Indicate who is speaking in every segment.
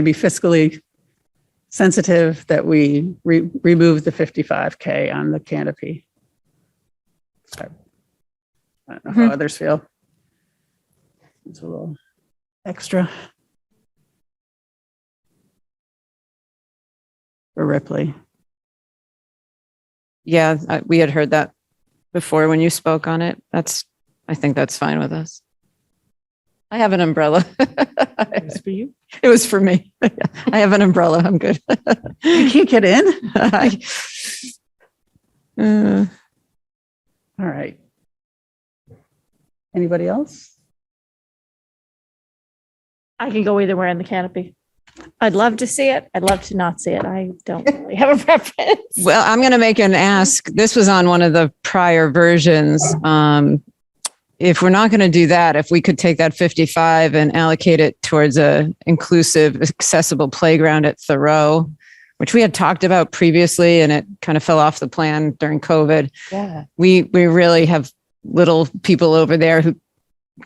Speaker 1: to be fiscally sensitive that we re- remove the 55K on the canopy. So, I don't know how others feel. It's a little extra. For Ripley.
Speaker 2: Yeah, I- we had heard that before when you spoke on it. That's, I think that's fine with us. I have an umbrella.
Speaker 3: It's for you.
Speaker 2: It was for me. I have an umbrella. I'm good.
Speaker 1: You can't get in?
Speaker 2: I- Uh,
Speaker 1: All right. Anybody else?
Speaker 3: I can go either way on the canopy. I'd love to see it. I'd love to not see it. I don't really have a preference.
Speaker 2: Well, I'm going to make an ask. This was on one of the prior versions. Um, If we're not going to do that, if we could take that 55 and allocate it towards a inclusive, accessible playground at Thoreau, which we had talked about previously and it kind of fell off the plan during COVID.
Speaker 3: Yeah.
Speaker 2: We, we really have little people over there who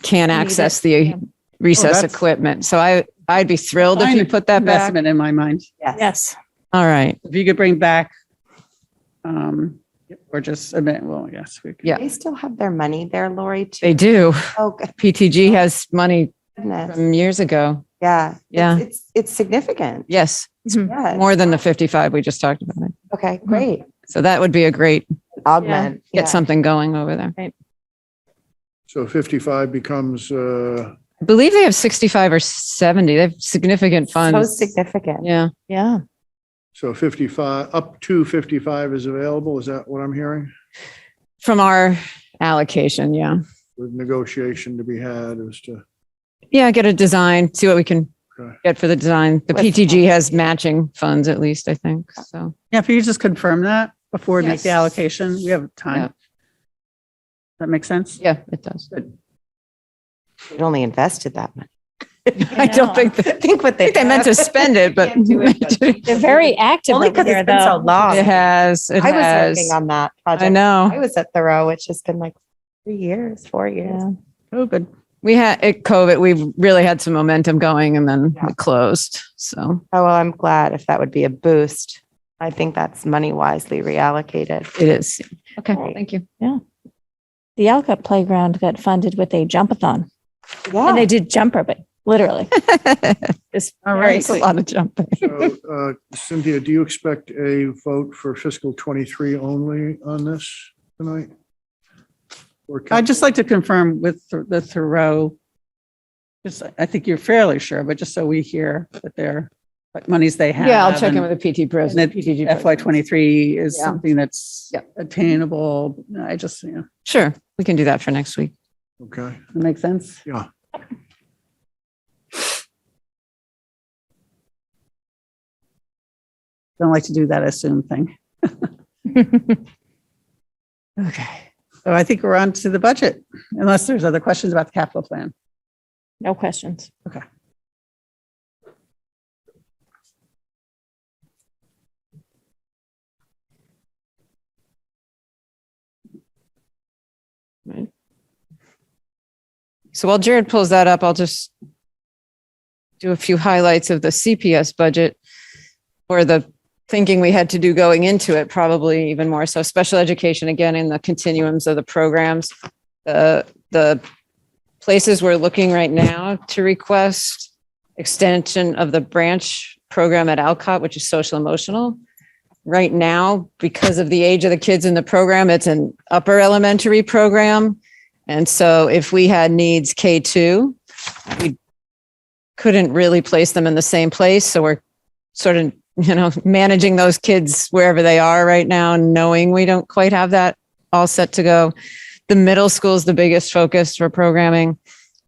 Speaker 2: can't
Speaker 3: Need it,
Speaker 2: access
Speaker 3: yeah.
Speaker 2: the recess
Speaker 1: that's-
Speaker 2: equipment. So I, I'd be thrilled if
Speaker 1: Fine
Speaker 2: you put that back.
Speaker 1: Investment in my mind.
Speaker 3: Yes.
Speaker 2: All right.
Speaker 1: If you could bring back, um, or just admit, well, yes, we could.
Speaker 2: Yeah.
Speaker 4: They still have their money there, Lori, too.
Speaker 2: They do.
Speaker 4: Oh,
Speaker 2: PTG has money
Speaker 4: goodness.
Speaker 2: from years ago.
Speaker 4: Yeah.
Speaker 2: Yeah.
Speaker 4: It's, it's, it's significant.
Speaker 2: Yes,
Speaker 4: Yeah.
Speaker 2: more than the 55 we just talked about. it.
Speaker 4: Okay, great.
Speaker 2: So that would be a great,
Speaker 4: Augment.
Speaker 2: get something going over there.
Speaker 5: So 55 becomes, uh,
Speaker 2: I believe they have 65 or 70. They have significant
Speaker 4: So
Speaker 2: funds.
Speaker 4: significant.
Speaker 2: Yeah,
Speaker 3: Yeah.
Speaker 5: so 55, up to 55 is available, is that what I'm hearing?
Speaker 2: from our allocation, yeah.
Speaker 5: With negotiation to be had as to,
Speaker 2: Yeah, get a design, see what we can
Speaker 5: Okay.
Speaker 2: get for the design. The PTG has matching funds at least, I think, so.
Speaker 1: Yeah, if you just confirm that before we make the
Speaker 2: Yes.
Speaker 1: allocation, we have
Speaker 2: Yeah.
Speaker 1: time. That makes sense?
Speaker 2: Yeah, it does.
Speaker 4: It only invested that much.
Speaker 2: I don't think, I
Speaker 4: Think what they.
Speaker 2: think they meant to spend it, but it
Speaker 3: They're very active
Speaker 4: Only
Speaker 3: over
Speaker 4: because
Speaker 3: there,
Speaker 4: it's been so
Speaker 3: though.
Speaker 4: long.
Speaker 2: has, it
Speaker 4: I was
Speaker 2: has.
Speaker 4: working on that
Speaker 2: I
Speaker 4: project.
Speaker 2: know.
Speaker 4: I was at Thoreau, which has been like three years, four years.
Speaker 3: Yeah.
Speaker 1: Oh, good.
Speaker 2: We had, at COVID, we really had some momentum going and then
Speaker 4: Yeah.
Speaker 2: we closed, so.
Speaker 4: Oh, well, I'm glad if that would be a boost. I think that's money wisely reallocated.
Speaker 2: It is. Okay,
Speaker 4: Right.
Speaker 2: thank you.
Speaker 3: The Alcott Playground got funded with a jumpathon. And
Speaker 4: Yeah.
Speaker 3: they did jump roping, literally. It's
Speaker 1: All
Speaker 3: very
Speaker 1: right.
Speaker 2: It's a
Speaker 3: sweet.
Speaker 2: lot of jumping.
Speaker 5: so, uh, Cynthia, do you expect a vote for fiscal 23 only on this tonight? Or can-
Speaker 1: I'd just like to confirm with Th- the Thoreau. Just, I think you're fairly sure, but just so we hear that they're, what monies they have.
Speaker 2: Yeah, I'll check in
Speaker 1: and-
Speaker 2: with the PT
Speaker 1: And that
Speaker 2: president. PTG
Speaker 1: FY
Speaker 2: president.
Speaker 1: twenty-three is
Speaker 2: Yeah.
Speaker 1: something that's
Speaker 2: Yeah.
Speaker 1: attainable. I just, you know,
Speaker 2: Sure, we can do that for next week.
Speaker 5: Okay,
Speaker 1: that makes sense.
Speaker 5: yeah.
Speaker 1: Don't like to do that assume thing.
Speaker 2: Okay.
Speaker 1: So I think we're on to the budget, unless there's other questions about the capital plan.
Speaker 3: No questions.
Speaker 2: So while Jared pulls that up, I'll just do a few highlights of the CPS budget or the thinking we had to do going into it, probably even more. So special education, again, in the continuums of the programs. The, the places we're looking right now to request extension of the branch program at Alcott, which is social emotional. Right now, because of the age of the kids in the program, it's an upper elementary program. And so if we had needs K2, we couldn't really place them in the same place. So we're sort of, you know, managing those kids wherever they are right now, knowing we don't quite have that all set to go. The middle school is the biggest focus for programming.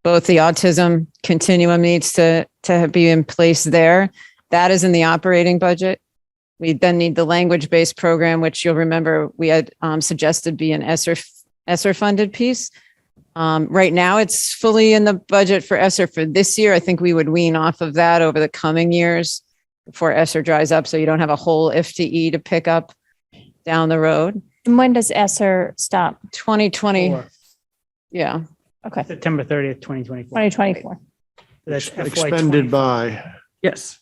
Speaker 2: Both the autism continuum needs to, to be in place there. That is in the operating budget. We then need the language based program, which you'll remember we had um, suggested be an ESSER ESSER funded piece. Um, right now, it's fully in the budget for ESSER for this year. I think we would wean off of that over the coming years before ESSER dries up, so you don't have a whole FTE to pick up down the road.
Speaker 3: And when does Esser stop?
Speaker 2: 2020,
Speaker 6: Four.
Speaker 2: yeah,
Speaker 3: Okay,
Speaker 6: September 30th, 2024.
Speaker 3: 2024.
Speaker 6: That's FY
Speaker 5: Expended
Speaker 6: 24.
Speaker 5: by,
Speaker 1: Yes.